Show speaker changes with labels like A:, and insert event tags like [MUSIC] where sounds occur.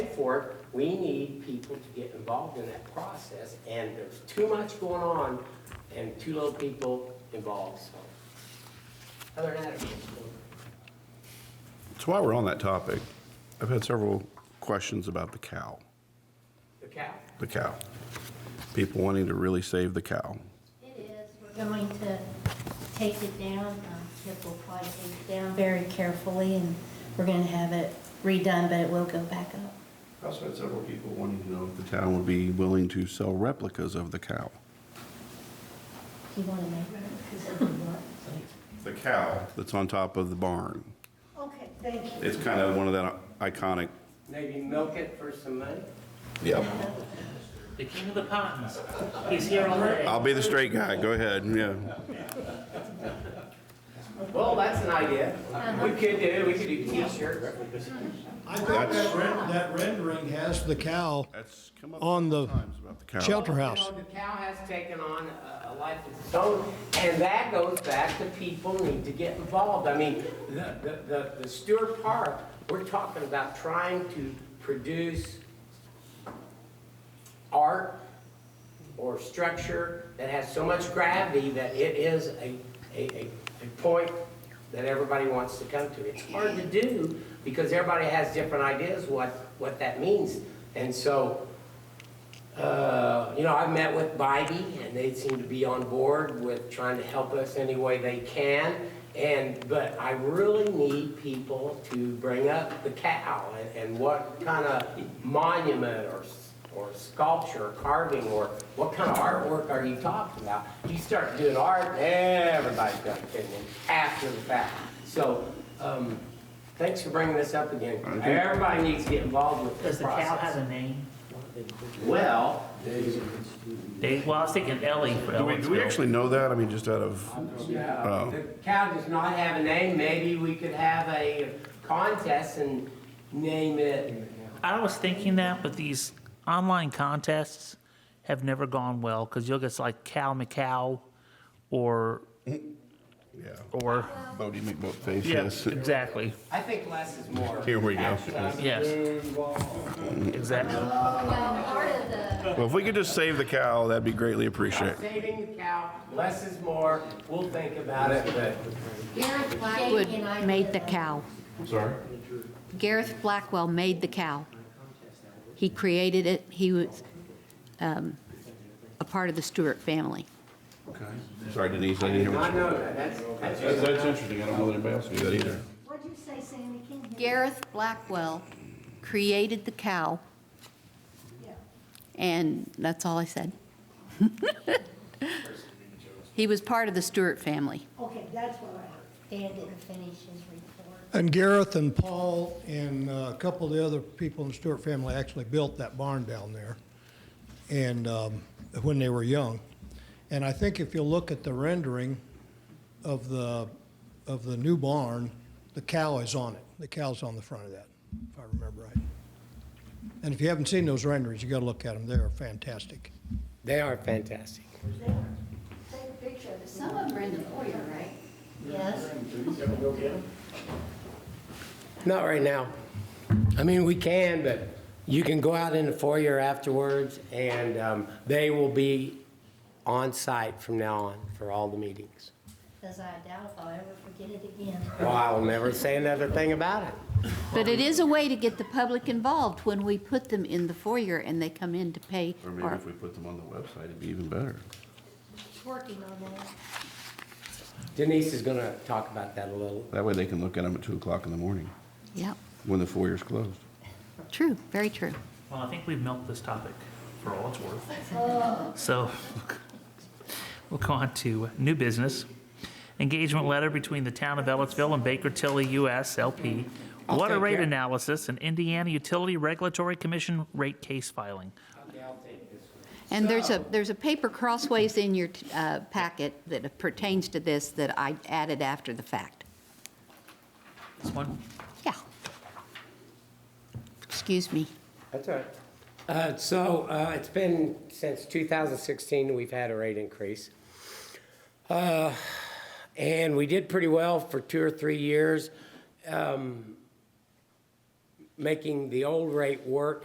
A: Therefore, we need people to get involved in that process, and there's too much going on and too little people involved, so. Other than that, it's
B: So while we're on that topic, I've had several questions about the cow,
A: the cow.
B: the cow. People wanting to really save the cow.
C: It is, we're going to take it down, um, Kip will probably take it down very carefully, and we're gonna have it redone, but it will go back up.
B: I also had several people wanting to know if the town would be willing to sell replicas of the cow.
C: Do you wanna make it?
B: The cow? That's on top of the barn.
C: Okay, thank you.
B: It's kind of one of that iconic.
A: Maybe milk it for some money?
B: Yep.
D: The king of the ponds. He's here already.
B: I'll be the straight guy, go ahead, yeah.
A: Well, that's an idea. We could do, we could do t-shirts.
E: I think that ren- that rendering has the cow
B: That's come up
E: on the
B: times about the cow.
E: shelter house.
A: You know, The cow has taken on a- a life of its own, and that goes back to people need to get involved. I mean, the- the, the, the Stewart Park, we're talking about trying to produce art or structure that has so much gravity that it is a, a, a, a point that everybody wants to come to. It's hard to do because everybody has different ideas what, what that means. And so, uh, you know, I've met with Bybee, and they seem to be on board with trying to help us any way they can. And, but I really need people to bring up the cow and, and what kind of monument or, s- or sculpture, or carving, or what kind of artwork are you talking about? You start doing art, everybody's got an opinion after the fact. So, um, thanks for bringing this up again. Everybody needs to get involved with this
D: Does the cow
A: process.
D: have a name?
A: Well,
D: Dave, well, I was thinking Ellie
B: Do we,
D: for
B: do we
D: Ellisville.
B: actually know that? I mean, just out of,
A: Yeah,
B: Oh.
A: the cow does not have a name, maybe we could have a contest and name it.
D: I was thinking that, but these online contests have never gone well because you'll get like Cow McCow or,
B: yeah,
D: or,
B: Bodie McBoatface,
D: yeah,
B: yes.
D: exactly,
A: I think less is more.
B: Here we go.
A: actually.
D: yes, exactly.
C: Well, part of the,
B: Well, if we could just save the cow, that'd be greatly appreciated.
A: Saving the cow, less is more, we'll think about it, but
C: Garrett Blackie and I.
F: Blackwood made the cow.
B: Sorry?
F: Gareth Blackwell made the cow. He created it. He was um, a part of the Stewart family.
B: Okay. Sorry Denise, I didn't
A: I
B: hear what you.
A: know that, that's, that's
B: That's,
A: just.
B: that's interesting, I don't know that anybody else knew that either.
C: What'd you say, Sandy? Can't hear.
F: Gareth Blackwell created the cow. And that's all I said. [LAUGHS] He was part of the Stewart family.
C: Okay, that's what I heard. Dan didn't finish his report.
E: And Gareth and Paul and uh, a couple of the other people in the Stewart family actually built that barn down there and, um, when they were young. And I think if you look at the rendering of the, of the new barn, the cow is on it. The cow's on the front of that, if I remember right. And if you haven't seen those renderings, you gotta look at them. They are fantastic.
A: They are fantastic.
C: Take a picture of this.
F: Some of them are in the foyer, right?
C: Yes,
A: Not right now. I mean, we can, but you can go out in the foyer afterwards, and um, they will be on site from now on for all the meetings.
C: because I doubt if I'll ever forget it again.
A: Well, I will never say another thing about it.
F: But it is a way to get the public involved when we put them in the foyer and they come in to pay.
B: Or maybe
F: our-
B: if we put them on the website, it'd be even better.
C: Working on that.
A: Denise is gonna talk about that a little.
B: That way they can look at them at two o'clock in the morning,
F: Yeah,
B: when the foyer's closed.
F: true, very true.
D: Well, I think we've milked this topic for all it's worth. So we'll go on to new business. Engagement letter between the town of Ellisville and Baker Tilly US LP.
A: I'll
D: Water
A: take
D: rate
A: that.
D: analysis and Indiana Utility Regulatory Commission rate case filing.
F: And there's a, there's a paper crossways in your uh, packet that pertains to this that I added after the fact.
D: This one,
F: Yeah. Excuse me.
A: That's all right. Uh, so, uh, it's been since 2016, we've had a rate increase. Uh, and we did pretty well for two or three years, um, making the old rate work